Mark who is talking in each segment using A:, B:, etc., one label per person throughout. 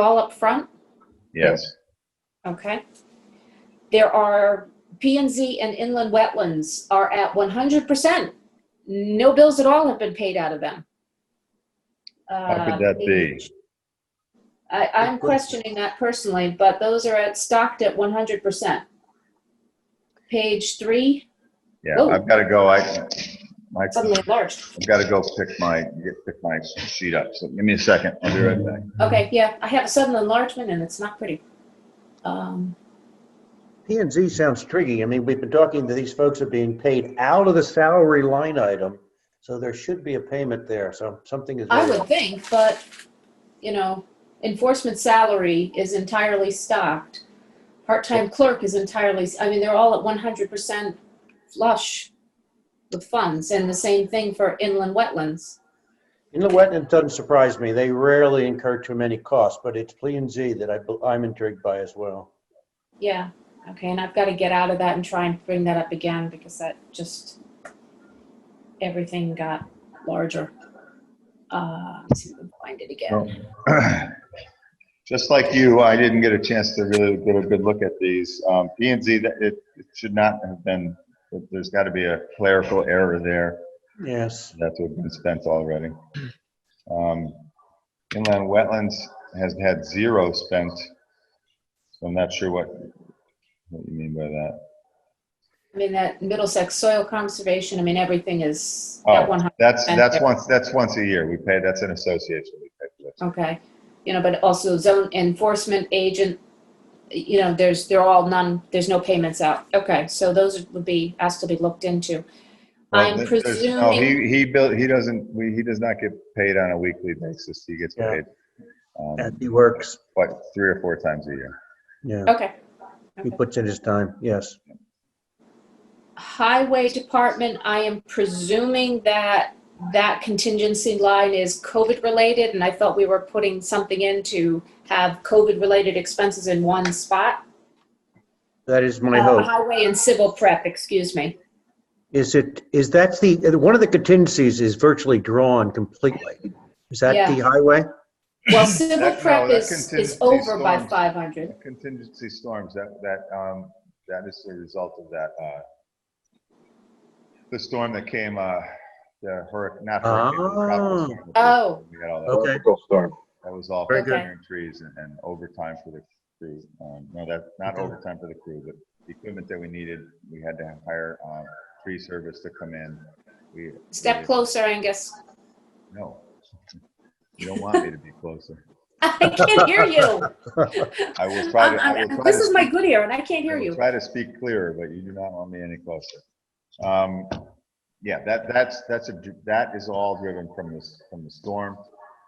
A: all up front?
B: Yes,
A: Okay. There are, P and Z and inland wetlands are at 100%. No bills at all have been paid out of them. Um,
B: how could that be?
A: I, I'm questioning that personally, but those are at, stocked at 100%. Page three,
B: Yeah, I've got to go, I, my, I've
A: suddenly enlarged.
B: got to go pick my, get- pick my sheet up, so give me a second, I'll be right back.
A: Okay, yeah, I have a sudden enlargement and it's not pretty. Um,
C: P and Z sounds tricky. I mean, we've been talking to these folks are being paid out of the salary line item, so there should be a payment there. So something is.
A: I would think, but, you know, enforcement salary is entirely stocked. Part-time clerk is entirely, I mean, they're all at one hundred percent flush with funds, and the same thing for inland wetlands.
C: Inland wetland doesn't surprise me. They rarely incur too many costs, but it's P and Z that I, bel- I'm intrigued by as well.
A: Yeah, okay, and I've gotta get out of that and try and bring that up again, because that just, everything got larger. Uh, let's see if we can find it again.
B: Just like you, I didn't get a chance to really get a good look at these. Um, P and Z, that- it, it should not have been, there's got to be a clerical error there.
C: Yes.
B: That's what been spent already. Um, Inland Wetlands has had zero spent, so I'm not sure what, what you mean by that.
A: I mean, that Middlesex soil conservation, I mean, everything is
B: Oh.
A: at one hundred,
B: That's,
A: Spent
B: that's
A: there.
B: once, that's once a year, we pay, that's an association. we pay for that.
A: okay. You know, but also zone enforcement agent, you know, there's, they're all none, there's no payments out. Okay, so those would be, asked to be looked into.
B: Well,
A: I'm
B: there's- oh,
A: presuming-
B: He, he built, he doesn't, we, he does not get paid on a weekly basis, he gets
C: Yeah.
B: paid, um,
C: He works.
B: what, three or four times a year.
C: Yeah,
A: Okay.
C: he
A: Okay.
C: puts in his time. Yes.
A: Highway Department, I am presuming that that contingency line is COVID-related, and I thought we were putting something in to have COVID-related expenses in one spot.
C: That is my
A: Uh,
C: hope.
A: Highway and civil prep, excuse me.
C: Is it, is that's the, one of the contingencies is virtually drawn completely. Is that
A: Yeah.
C: the highway?
A: Well, civil
B: That- no,
A: prep
B: that
A: is, is
B: contingency
A: over by
B: storms.
A: five hundred.
B: Contingency storms, that, that, um, that is the result of that, uh, the storm that came, uh, the hurricane, not hurricane. but the tropical storm that
A: Oh.
B: we had all that.
C: Okay.
B: That was all
C: Very
B: for
A: good. Okay.
B: clearing trees and- and overtime for the crew. Um, no, that, not
C: Okay.
B: overtime for the crew, but the equipment that we needed, we had to hire, um, tree service to come in. We.
A: Step
B: we-
A: closer, Angus.
B: No. You don't want me to be closer.
A: I can't hear you.
B: I will try
A: I'm-
B: to. I will
A: I'm-
B: try
A: This
B: to
A: is my
B: speak-
A: good ear and I can't
B: I
A: hear
B: will
A: you.
B: Try to speak clearer, but you do not want me any closer. Um, yeah, that, that's, that's a, that is all driven from this, from the storm.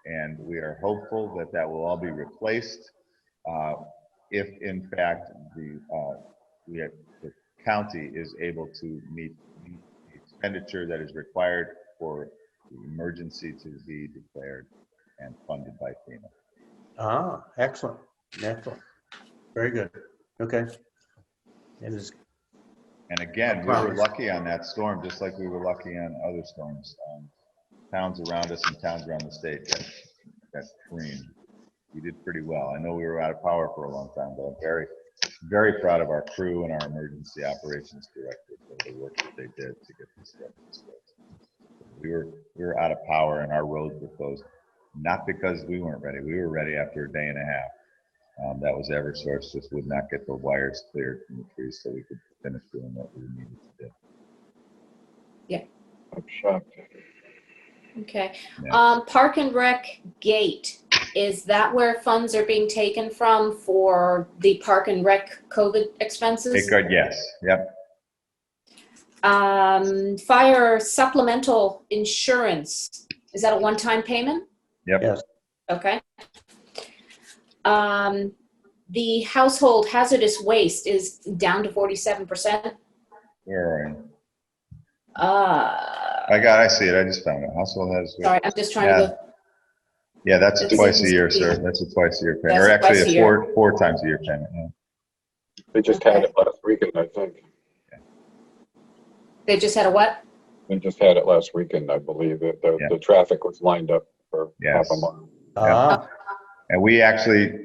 B: And we are hopeful that that will all be replaced. Uh, if in fact the, uh, we have, the county is able to meet the expenditure that is required for the emergency to be declared and funded by FEMA.
C: Ah, excellent, excellent. Very good. Okay. It is,
B: And again, we were
C: Promise.
B: lucky on that storm, just like we were lucky on other storms. Um, Towns around us and towns around the state got, got creamed. We did pretty well. I know we were out of power for a long time, but I'm very, very proud of our crew and our emergency operations director for the work that they did to get this stuff. We were, we were out of power and our roads were closed, not because we weren't ready. We were ready after a day and a half. Um, that was Eversource, just would not get the wires cleared from the trees so we could finish doing what we needed to do.
D: I'm shocked.
A: Okay.
B: Yeah.
A: Um, Park and Rec Gate, is that where funds are being taken from for the Park and Rec COVID
B: State
A: expenses?
B: Guard, yes, yep,
A: Um, fire supplemental insurance, is that a one-time payment?
B: yep.
C: yes,
A: Okay. Um, the household hazardous waste is down to forty-seven percent.
B: Where are you?
A: Uh,
B: I got, I see it, I just found it. Household has,
A: sorry, I'm just trying to look.
B: yeah, that's
A: This
B: twice a
A: is-
B: year, sir. That's a twice a year payment,
A: That's
B: or
A: a
B: actually
A: twice a
B: a
A: year.
B: four, four times a year payment. yeah.
D: They just had it last weekend, I think.
A: They just had a what?
D: They just had it last weekend, I believe. The, the,
B: Yeah.
D: the traffic was lined up for half
B: Yes.
D: a mile.
C: ah.
B: And we actually,